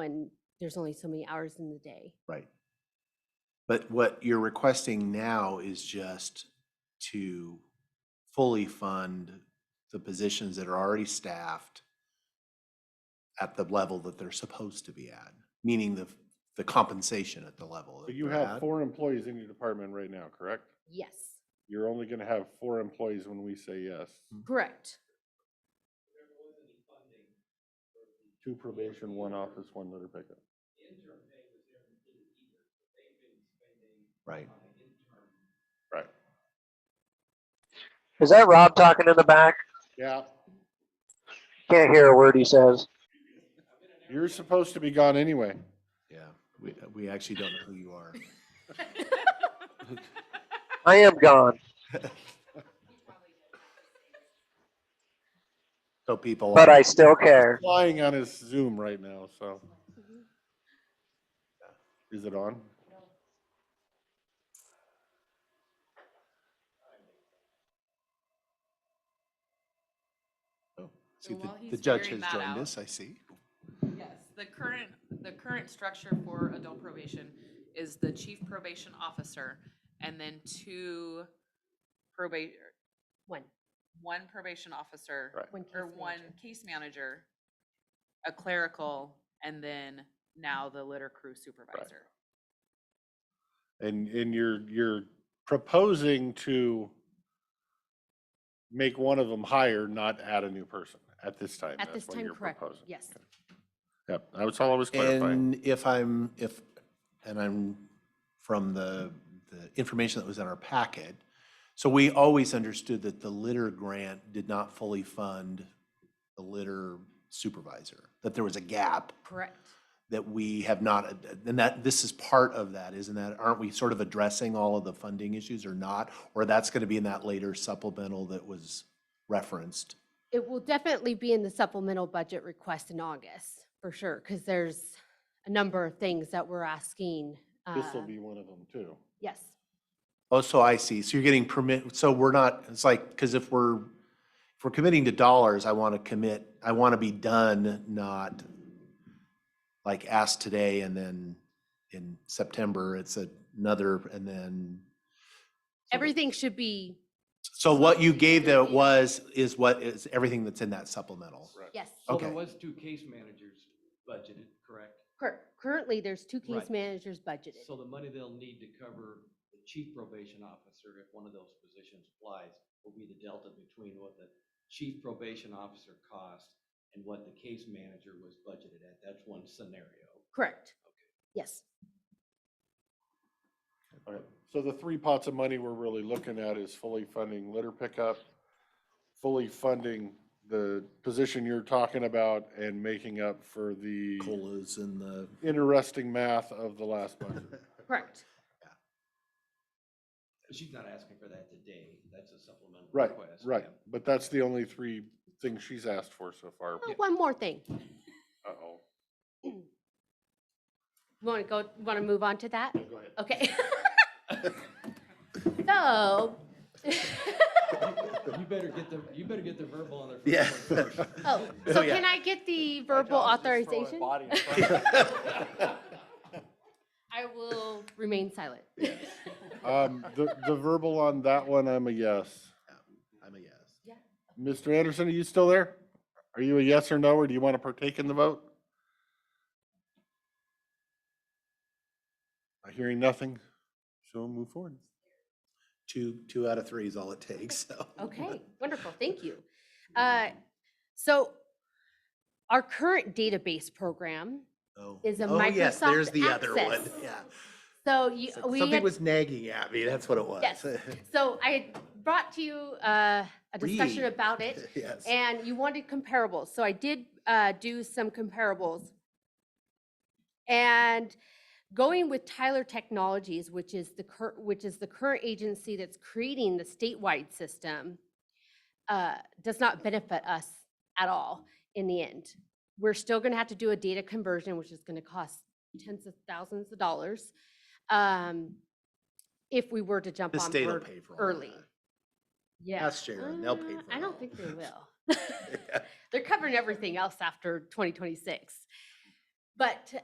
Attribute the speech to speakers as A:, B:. A: when there's only so many hours in the day.
B: Right. But what you're requesting now is just to fully fund the positions that are already staffed at the level that they're supposed to be at, meaning the, the compensation at the level.
C: So
B: that
C: you
B: they're
C: have
B: at.
C: four employees in your department right now, correct?
A: Yes,
D: Mm-hmm.
C: You're only gonna have four employees when we say yes.
A: correct.
C: Two probation, one office, one litter pickup.
B: Right.
C: Right.
E: Is that Rob talking in the back?
C: Yeah,
E: Can't hear a word he says.
C: you're supposed to be gone anyway.
B: Yeah. We, we actually don't know who you are.
E: I am gone.
B: So people.
E: But
B: are-
E: I still care.
C: Flying on his Zoom right now, so. Is it on?
B: oh, See, the,
D: while
B: the
D: he's
B: judge has
D: figuring that
B: joined
D: out-
B: us, I see.
D: Yes, the current, the current structure for adult probation is the chief probation officer and then two probate,
A: One,
D: one probation officer.
C: Right.
A: one case
D: Or one
A: manager.
D: case manager, a clerical, and then now the litter crew supervisor.
C: And, and you're, you're proposing to make one of them higher, not add a new person at this time.
A: At
C: That's
A: this
C: what
A: time,
C: you're
A: correct,
C: proposing.
A: yes.
C: Okay. Yep, I was always clarifying.
B: And if I'm, if, and I'm from the, the information that was in our packet, so we always understood that the litter grant did not fully fund the litter supervisor, that there was a gap
A: Correct.
B: that we have not, and that, this is part of that, isn't that, aren't we sort of addressing all of the funding issues or not? Or that's going to be in that later supplemental that was referenced?
A: It will definitely be in the supplemental budget request in August, for sure, because there's a number of things that we're asking.
C: This will
A: uh,
C: be one of them too.
A: Yes,
B: Oh, so I see. So you're getting permit, so we're not, it's like, because if we're, if we're committing to dollars, I want to commit, I want to be done, not like asked today and then in September, it's another, and then.
A: everything should be,
B: So what you gave that was, is what is everything that's in that supplemental.
C: Right.
A: yes.
F: So there
B: Okay.
F: was two case managers budgeted, correct?
A: Cur- Currently, there's two case
F: Right.
A: managers budgeted.
F: So the money they'll need to cover the chief probation officer, if one of those positions applies, will be the delta between what the chief probation officer cost and what the case manager was budgeted at. That's one scenario.
A: Correct. Yes,
C: Okay, so the three pots of money we're really looking at is fully funding litter pickup, fully funding the position you're talking about and making up for the
B: Colas and the.
C: interesting math of the last budget.
A: correct.
F: But She's not asking for that today. That's a supplemental
C: Right,
F: request.
C: right.
F: yeah.
C: But that's the only three things she's asked for so far.
A: Oh, One more thing.
C: Uh-oh.
A: Want to go, want to move on to that?
C: Go ahead.
A: Okay. So,
F: You better get the, you better get the verbal on their
B: Yeah.
F: first one first.
A: oh,
B: Oh,
A: so
B: yeah.
A: can I get the verbal authorization? I will remain silent.
C: Um, the, the verbal on that one, I'm a yes.
B: I'm a yes.
C: Mr. Anderson, are you still there? Are you a yes or no, or do you want to partake in the vote? I'm hearing nothing, so we'll move forward.
B: Two, two out of three is all it takes, so.
A: Okay, wonderful, thank you. Uh, So our current database program,
B: Oh.
A: Is a
B: Oh, yes, There's
A: Microsoft
B: the other one.
A: Access.
B: Yeah.
A: so you,
B: So-
A: we
B: Something
A: had,
B: was nagging at me. That's what it was.
A: Yes. so I had brought to you uh, a discussion
B: Read.
A: about it.
B: Yes.
A: And you wanted comparables, so I did uh, do some comparables. And going with Tyler Technologies, which is the cur, which is the current agency that's creating the statewide system, uh, does not benefit us at all in the end. We're still gonna have to do a data conversion, which is gonna cost tens of thousands of dollars. um, If we were to jump
B: The
A: on
B: state will
A: board
B: pay for all of
A: early.
B: that.
A: Yeah.
B: Ask Sharon, they'll pay
A: Uh,
B: for
A: I
B: it
A: don't
B: all.
A: think they will. They're covering everything else after 2026. But to